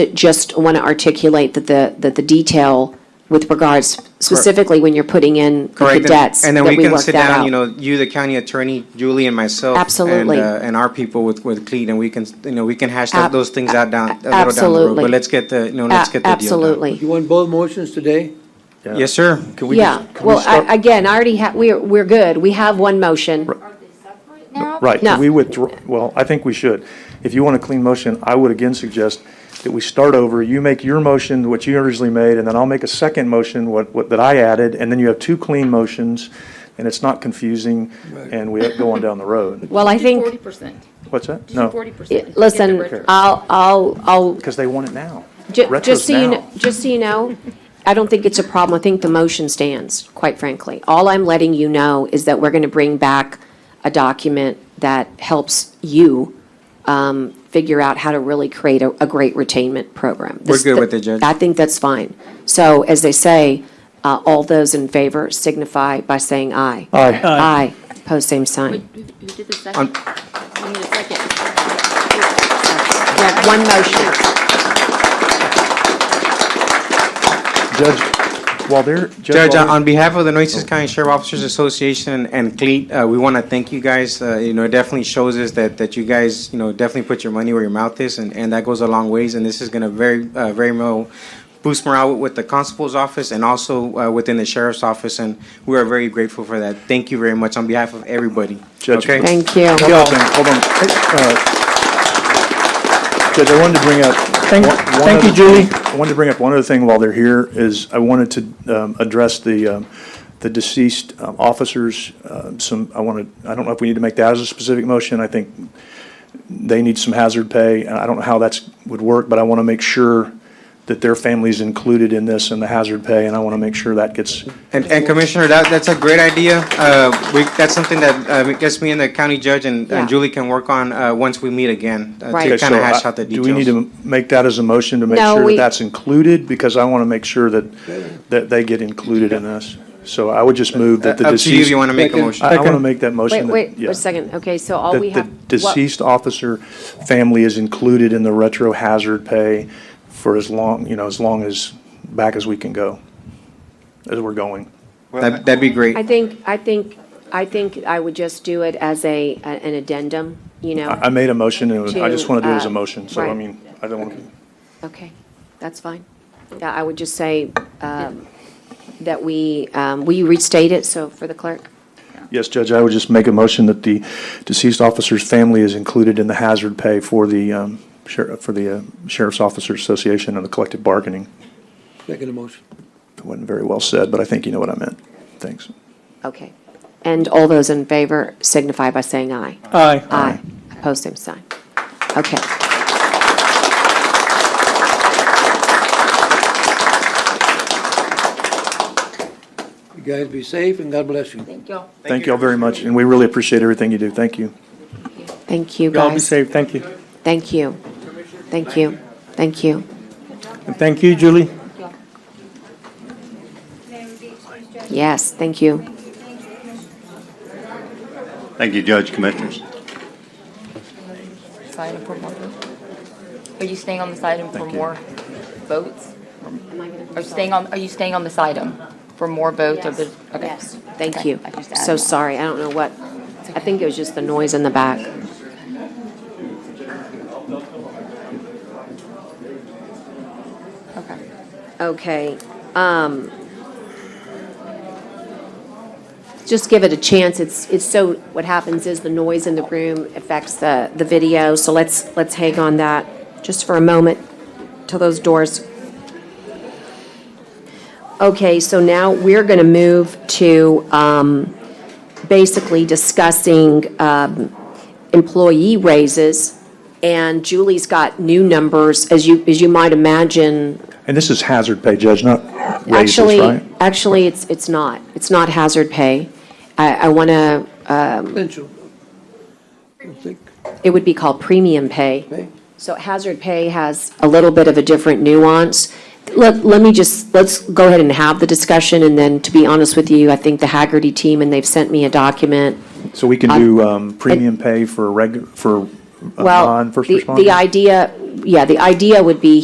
just want to articulate that the, that the detail with regards specifically when you're putting in the Correct, and- cadets, that And then we we can work sit that down, out. you know, you, the county attorney, Julie and myself. and, Absolutely. uh, And our people with, with Cleat, and we can, you know, we can hash that- Ab- those things out down, a little down the road. absolutely. But let's get the, you A- know, let's get the deal done. Absolutely. You want both motions today? Yes, sir. Can we Yeah, just- can we well, start- I- again, I already have, we're, we're good. We have one motion. Are they separate now? Right, No. can we withdraw, well, I think we should. If you want a clean motion, I would again suggest that we start over. You make your motion, what you originally made, and then I'll make a second motion, what, what, that I added, and then you have two clean motions, and it's not confusing, and we go on down the road. Well, I Forty think, percent. What's that? Forty No, percent. listen, I'll, I'll, I'll, because they want it now. ju- Retro's just so you, now. kn- just so you know, I don't think it's a problem. I think the motion stands, quite frankly. All I'm letting you know is that we're going to bring back a document that helps you um, figure out how to really create a, a great retainment program. We're This- good with it, Judge. I think that's fine. So as they say, uh, all those in favor signify by saying aye. Aye. Aye. Pose same sign. Who who did the second? We need a second. We have one motion. Judge, while they're. Judge, uh, while on they're- on behalf of the Oh. Nueces County Sheriff Officers Association and Cleat, uh, we want to thank you guys. Uh, You know, it definitely shows us that, that you guys, you know, definitely put your money where your mouth is, and, and that goes a long ways. And this is going to very, uh, very well boost morale with the constable's office and also uh, within the sheriff's office. And we are very grateful for that. Thank you very much on behalf of everybody. Judge, Okay? Thank you. One more thing, Hold on. Hey, uh, Judge, I wanted to bring up. Thank- one- one thank you, other- Julie. I wanted to bring up one other thing while they're here, is I wanted to um, address the, um, the deceased um, officers, um, some, I want to, I don't know if we need to make that as a specific motion, I think they need some hazard pay, and I don't know how that's, would work, but I want to make sure that their family's included in this and the hazard pay, and I want to make sure that gets, And, and Commissioner, that, that's a great idea. Uh, we, that's something that, uh, gets me and the county judge and, Yeah. and Julie can work on, uh, once we meet again. uh, Right. To Okay, kind of so hash I- out the Do we need details. to make that as a motion to make No, sure we- that that's included? Because I want to make sure that, that they get included in this. So I would just move that Up the to you if deceased. you want to make a Second. motion. I want to Second. make that Wait, motion. that- wait, yeah, a second. Okay, so all we have. That the what- deceased officer family is included in the retro hazard pay for as long, you know, as long as, back as we can go, as we're going. That, that'd be great. I think, I think, I think I would just do it as a, a- an addendum, you I I know? made a motion, and I just want to do it as To, a uh, motion, so I right. mean, I don't want to. Okay, that's fine. Yeah, I would just say um, that we, um, will you restate it, so, for the clerk? Yes, Judge, I would just make a motion that the deceased officer's family is included in the hazard pay for the um, sher- for the uh, Sheriff's Officers Association and the collective bargaining. Second motion. It wasn't very well said, but I think you know what I meant. Thanks. Okay. And all those in favor signify by saying aye. Aye. Aye. Opposed, same sign. Okay. You guys be safe and God bless you. Thank y'all. Thank you all very much, and we really appreciate everything you do. Thank you. Thank you, Y'all be guys. safe. Thank you. Thank you. Thank you. Thank you. And thank you, Julie. Yes, thank you. Thank you, Judge, Commissioners. Sign up for more. Are you staying on this item for more votes? Are you staying on, are you staying on this item for more votes of the? okay. Yes, thank Okay, you. I just So added that. sorry, I don't know what, I think it was just the noise in the back. Okay. Okay, um, just give it a chance, it's, it's so, what happens is the noise in the room affects the, the video, so let's, let's hang on that just for a moment till those doors. Okay, so now we're gonna move to, um, basically discussing, um, employee raises. And Julie's got new numbers, as you, as you might imagine, And this is hazard pay, Judge, not raises, Actually, right? actually, it's, it's not. It's not hazard pay. I, I want to, Potential. I think, it would be called premium pay. okay. So hazard pay has a little bit of a different nuance. Let, let me just, let's go ahead and have the discussion, and then, to be honest with you, I think the Haggerty team, and they've sent me a document. So we can do um, premium pay for reg, for uh, Well, non-first the- responders? The idea, yeah, the idea would be